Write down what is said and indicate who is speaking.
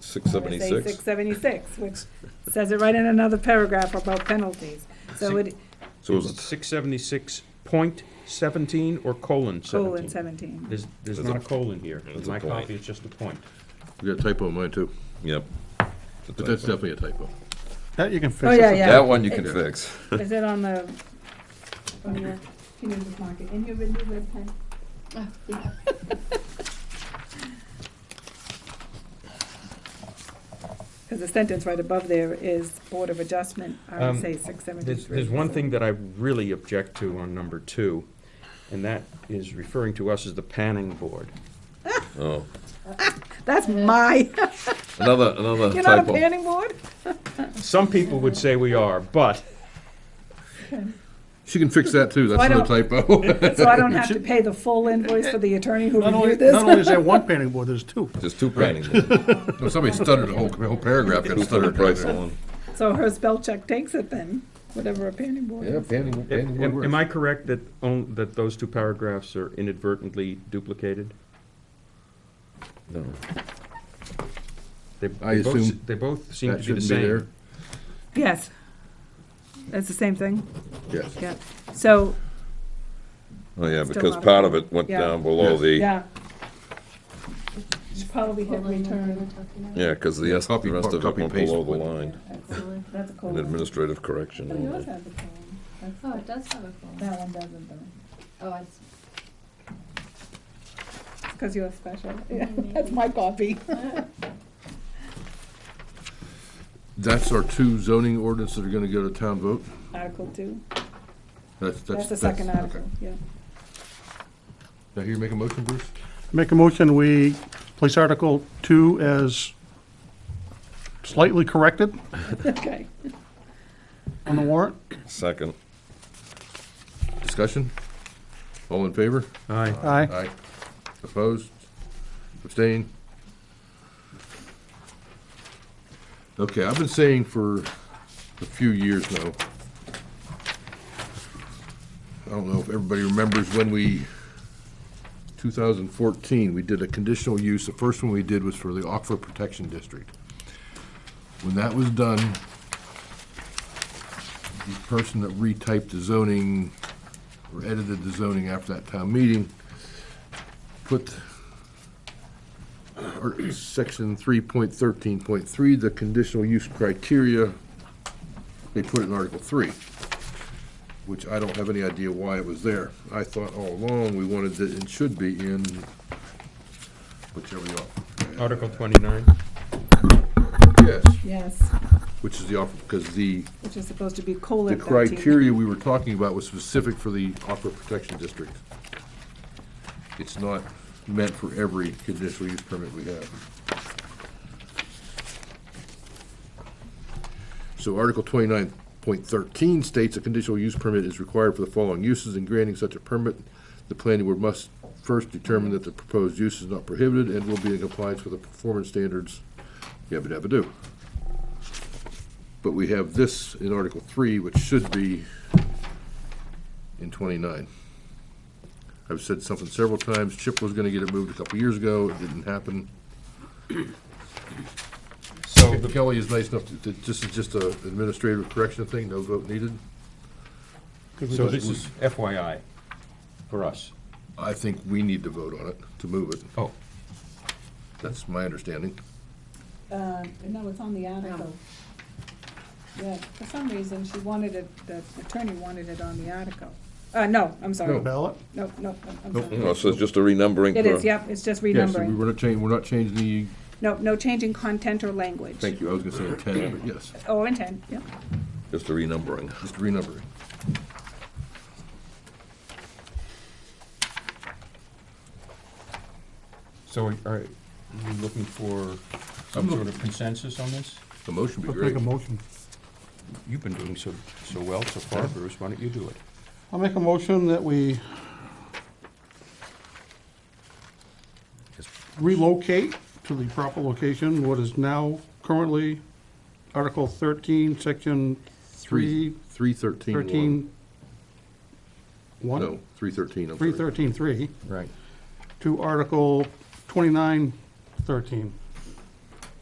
Speaker 1: six seventy-six.
Speaker 2: Six seventy-six, which says it right in another paragraph about penalties. So it,
Speaker 1: So it was,
Speaker 3: Six seventy-six point seventeen or colon
Speaker 2: colon
Speaker 3: seventeen?
Speaker 2: seventeen.
Speaker 3: There's, there's
Speaker 1: There's a-
Speaker 3: not a colon here.
Speaker 1: there's a
Speaker 3: My
Speaker 1: point.
Speaker 3: copy is just a point.
Speaker 4: You got a typo in mine too,
Speaker 1: yep.
Speaker 4: but that's definitely a typo.
Speaker 5: That you can fix.
Speaker 2: Oh,
Speaker 5: It's
Speaker 2: yeah,
Speaker 5: a-
Speaker 2: yeah.
Speaker 1: That one you can
Speaker 2: It's-
Speaker 1: fix.
Speaker 2: Is it on the, on your, can you just mark it in your red, red pen? Because the sentence right above there is Board of Adjustment, I
Speaker 3: Um,
Speaker 2: would say six seventy-three.
Speaker 3: There's, there's one thing that I really object to on number two, and that is referring to us as the panning board.
Speaker 1: Oh,
Speaker 2: That's my,
Speaker 1: another, another
Speaker 2: you're not a
Speaker 1: typo.
Speaker 2: planning board?
Speaker 3: Some people would say we are, but
Speaker 4: She can fix that too, that's
Speaker 2: Why
Speaker 4: another typo.
Speaker 2: So I don't have to pay the full invoice for the attorney who
Speaker 5: Not only,
Speaker 2: reviewed
Speaker 5: not
Speaker 2: this?
Speaker 5: only is there one painting board, there's two.
Speaker 1: Just two planning,
Speaker 4: No, Somebody stuttered, the whole, the whole paragraph got
Speaker 1: two for the
Speaker 4: stuttered.
Speaker 1: price
Speaker 4: down
Speaker 1: alone.
Speaker 2: So her spell check takes it then, whatever a planning board
Speaker 4: there. Yeah,
Speaker 2: is.
Speaker 4: panning, panning
Speaker 3: am
Speaker 4: board
Speaker 3: am
Speaker 4: works.
Speaker 3: I correct that, on- that those two paragraphs are inadvertently duplicated?
Speaker 1: No.
Speaker 3: They
Speaker 4: I
Speaker 3: they both s-
Speaker 4: assume
Speaker 3: They both seem to
Speaker 4: That
Speaker 3: be the
Speaker 4: shouldn't be there.
Speaker 3: same.
Speaker 2: Yes. That's the same thing,
Speaker 4: Yes.
Speaker 2: yeah. So,
Speaker 1: Oh, yeah,
Speaker 2: Still
Speaker 1: because
Speaker 2: not a
Speaker 1: part of it went
Speaker 2: Yeah.
Speaker 1: down below the,
Speaker 2: yeah. Should probably hit return.
Speaker 1: yeah, because the rest
Speaker 4: Copy-
Speaker 1: the rest of it
Speaker 4: copy
Speaker 1: went
Speaker 4: paste
Speaker 1: below the
Speaker 4: went-
Speaker 1: line.
Speaker 2: That's a
Speaker 1: An
Speaker 2: colon.
Speaker 1: administrative correction.
Speaker 2: Oh, yours has a colon. That's-
Speaker 6: Oh, it does have a phone.
Speaker 2: That one doesn't though.
Speaker 6: Oh, it's,
Speaker 2: Because you're special. Yeah, that's my copy.
Speaker 4: That's our two zoning ordinance that are gonna go to town vote.
Speaker 2: Article two.
Speaker 4: That's,
Speaker 2: That's
Speaker 4: that's.
Speaker 2: the second
Speaker 4: okay.
Speaker 2: article, yeah.
Speaker 4: Now, here, you make a motion, Bruce?
Speaker 5: Make a motion, we place Article Two as slightly corrected
Speaker 2: Okay.
Speaker 5: on the warrant.
Speaker 1: Second.
Speaker 4: Discussion? All in favor?
Speaker 3: Aye.
Speaker 5: Aye.
Speaker 4: Aye. Opposed? Abstained? Okay, I've been saying for a few years now, I don't know if everybody remembers when we, 2014, we did a conditional use. The first one we did was for the Aquifer Protection District. When that was done, the person that retyped the zoning or edited the zoning after that town meeting put or section three point thirteen point three, the conditional use criteria, they put it in article three, which I don't have any idea why it was there. I thought all along we wanted it and should be in whichever you are.
Speaker 3: Article twenty-nine.
Speaker 4: Yes,
Speaker 2: Yes,
Speaker 4: which is the offer, because the,
Speaker 2: which is supposed to be
Speaker 4: the
Speaker 2: colon thirteen.
Speaker 4: criteria we were talking about was specific for the offer protection district. It's not meant for every conditional use permit we have. So Article twenty-nine point thirteen states a conditional use permit is required for the following uses. In granting such a permit, the planning board must first determine that the proposed use is not prohibited and will be in compliance with the performance standards, yabba dabba do. But we have this in Article three, which should be in twenty-nine. I've said something several times, Chip was gonna get it moved a couple years ago, it didn't happen.
Speaker 3: So the
Speaker 4: Kelly is nice enough, to- to- this is just a administrative correction thing, no vote needed.
Speaker 3: So this is FYI for us.
Speaker 4: I think we need to vote on it to move it,
Speaker 3: Oh,
Speaker 4: that's my understanding.
Speaker 2: Uh, no, it's on the article. Yeah, for some reason, she wanted it, the attorney wanted it on the article. Uh, no, I'm sorry. No,
Speaker 5: Ballot.
Speaker 2: no, I'm- I'm
Speaker 4: Nope.
Speaker 2: sorry.
Speaker 1: Oh, So it's just a renumbering.
Speaker 2: It is,
Speaker 1: for-
Speaker 2: yep, it's just
Speaker 4: Yes, we
Speaker 2: renumbering.
Speaker 4: were not changing, we're not changing the,
Speaker 2: No, no change in content or language.
Speaker 4: thank you, I was gonna say intent, but yes,
Speaker 2: Or intent, yep.
Speaker 1: Just a renumbering.
Speaker 4: just renumbering.
Speaker 3: so are are you looking for some sort of consensus on this?
Speaker 4: The motion would
Speaker 5: Let's
Speaker 4: be
Speaker 5: make
Speaker 4: great.
Speaker 5: a motion.
Speaker 3: You've been doing so, so well so far, Bruce, why don't you do it?
Speaker 5: I'll make a motion that we relocate to the proper location what is now currently Article thirteen, Section
Speaker 4: Three, three
Speaker 5: three,
Speaker 4: thirteen one.
Speaker 5: thirteen, one?
Speaker 4: No, three thirteen, I'm sorry.
Speaker 5: Three thirteen three
Speaker 3: Right.
Speaker 5: to Article twenty-nine thirteen.